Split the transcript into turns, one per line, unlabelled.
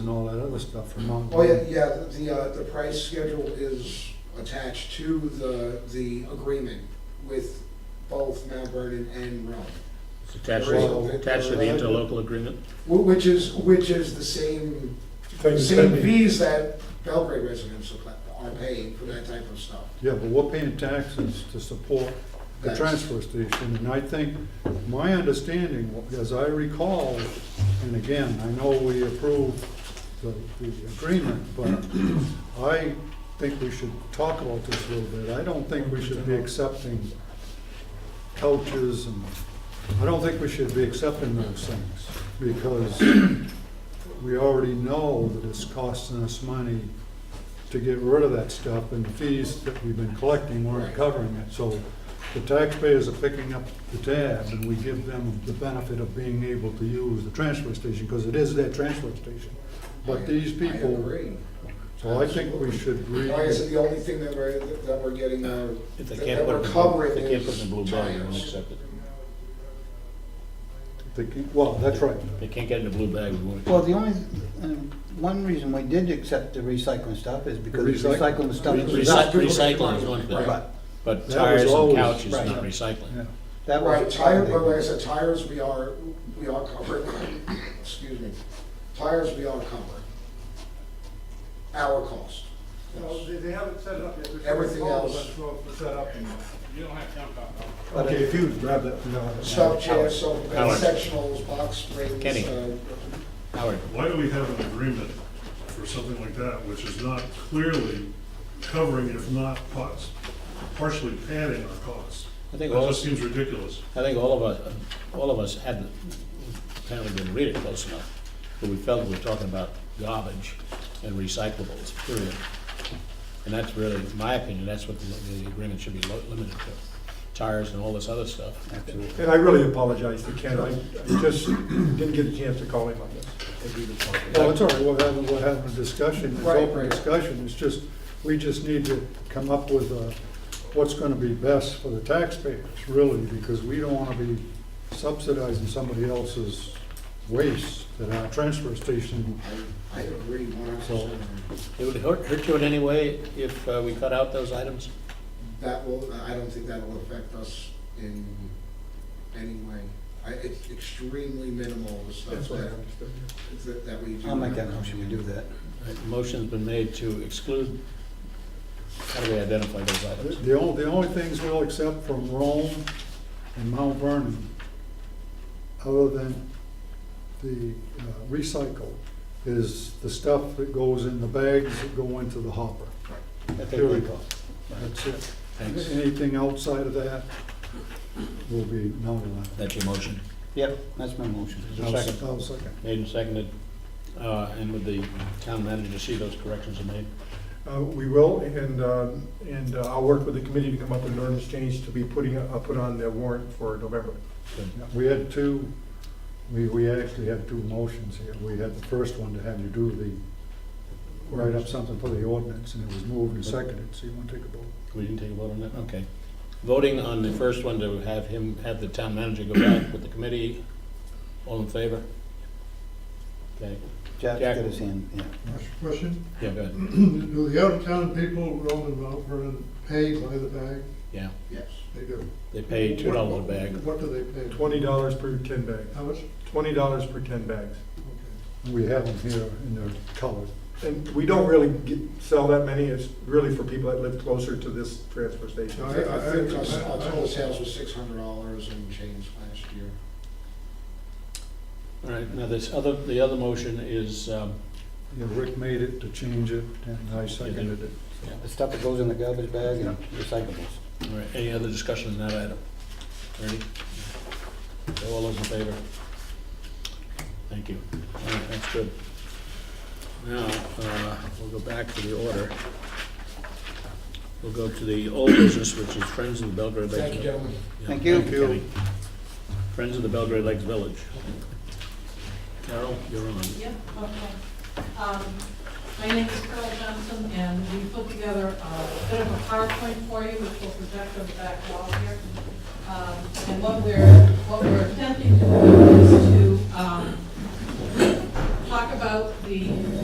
and all that other stuff from Mount.
Oh, yeah, yeah, the, uh, the price schedule is attached to the, the agreement with both Mount Vernon and Rome.
It's attached,
Well,
attached to the interlocal agreement.
Wh- Which is, which is the same,
Thing is
same
that-
fees that Belgrade residents are pla- are paying for that type of stuff.
Yeah, but we're paying taxes to support the
That's-
transfer station, and I think, my understanding, as I recall, and again, I know we approved the, the agreement, but I think we should talk about this a little bit. I don't think we should be accepting couches and, I don't think we should be accepting those things, because we already know that it's costing us money to get rid of that stuff, and the fees that we've been collecting weren't
Right.
covering it. So the taxpayers are picking up the tab, and we give them the benefit of being able to use the transfer station, because it is their transfer station. But these
I- I
people,
agree.
so I think we should re,
Like I said, the only thing that we're, that we're getting, uh,
If they
that
can't
that
put
we're
it, in the-
covering
if they can't put it in the blue
is
bag, they won't
tires.
accept it.
they can- well, that's right.
If They can't get it in the blue bag, we won't.
Well, the only, um, one reason we did accept the recycling stuff is because the
Recycling.
recycling stuff was
Recyc-
up.
Recycling is one thing,
But
but
was
tires and
always-
couches,
Right.
not recycling.
Yeah.
that
Right,
was.
tire, but like I said, tires, we are, we are covered, excuse me, tires, we are covered. Our cost.
Well, they, they haven't set it up yet. There's
Everything
all
else-
that's supposed to set up. You don't have jump out.
But
Okay, if
it-
you grab that. no, I don't have
Stub
it.
chairs, sofa
Howard.
beds, sectionals, box springs.
Kenny.
uh,
Howard,
Why do we have an agreement for something like that, which is not clearly covering, if not pos- partially padding our costs?
I
That
think all,
just
I
seems ridiculous.
think all of us, all of us hadn't, apparently didn't read it close enough, but we felt we were talking about garbage and recyclables, period. And that's really, in my opinion, that's what the, the agreement should be lo- limited to, tires and all this other stuff.
And I really apologize to Ken, I I just didn't get a chance to call him on this. as we were talking.
Well, it's all right, we're having, we're having a discussion, it's
Right,
open
right.
discussion, it's just, we just need to come up with uh, what's gonna be best for the taxpayers, really, because we don't wanna be subsidizing somebody else's waste at our transfer station.
uh, I I agree one hundred percent.
It would hurt, hurt you in any way if uh, we cut out those items?
That will, I don't think that will affect us in any way. I, it's extremely minimal, the stuff
That's what I
that,
understood.
that- that we do.
I'll make that motion, we do that.
Right, Motion's been made to exclude, how do we identify those
The-
items?
The only, the only things we'll accept from Rome and Mount Vernon, other than the uh, recycle, is the stuff that goes in the bags that go into the hopper.
I think
Here we
we-
go. That's it.
Thanks.
Anything outside of that will be not allowed.
That's your motion.
Yep, that's my motion.
Is there a
I'll
second?
I'll second.
Made and seconded, uh, and with the town manager, see those corrections are made?
Uh, We will, and, um, and uh, I'll work with the committee to come up with an ordinance change to be putting, uh, put on the warrant for November.
We had two, we, we actually had two motions here. We had the first one to have you do the, write up something for the ordinance, and it was moved and seconded, so you want to take a vote?
We didn't take a vote on that? Okay. Voting on the first one to have him, have the town manager go back with the committee, all in favor? Okay,
Jack's
Jack.
got his hand, yeah.
Question,
yeah, go ahead.
do the out-of-town people, Rome and Mount Vernon, pay by the bag?
Yeah,
Yes.
They do.
they pay two dollars a bag.
What do they pay?
Twenty dollars per ten bags,
How much?
twenty dollars per ten bags.
Okay.
We have them here in their colors.
And we don't really get, sell that many, it's really for people that live closer to this transfer station.
No, I, I think our, our total sales was six hundred dollars and change last year.
All right, now this other, the other motion is, um,
Yeah, Rick made it to change it, and I seconded it.
The stuff that goes in the garbage bag and recyclables.
All right, any other discussion on that item? Ready? So All those in favor? Thank you. All right, that's good. Now, uh, we'll go back to the order. We'll go to the old business, which is Friends of the Belgrade Lakes.
Thank you, gentlemen.
Yeah,
Thank you.
Kenny. Friends of the Belgrade Lakes Village. Carol, you're on.
Yep, okay. Um, My name is Carol Johnson, and we put together a bit of a PowerPoint for you, which will project on the back wall here. Um, And what we're, what we're attempting to do is to um, talk talk about the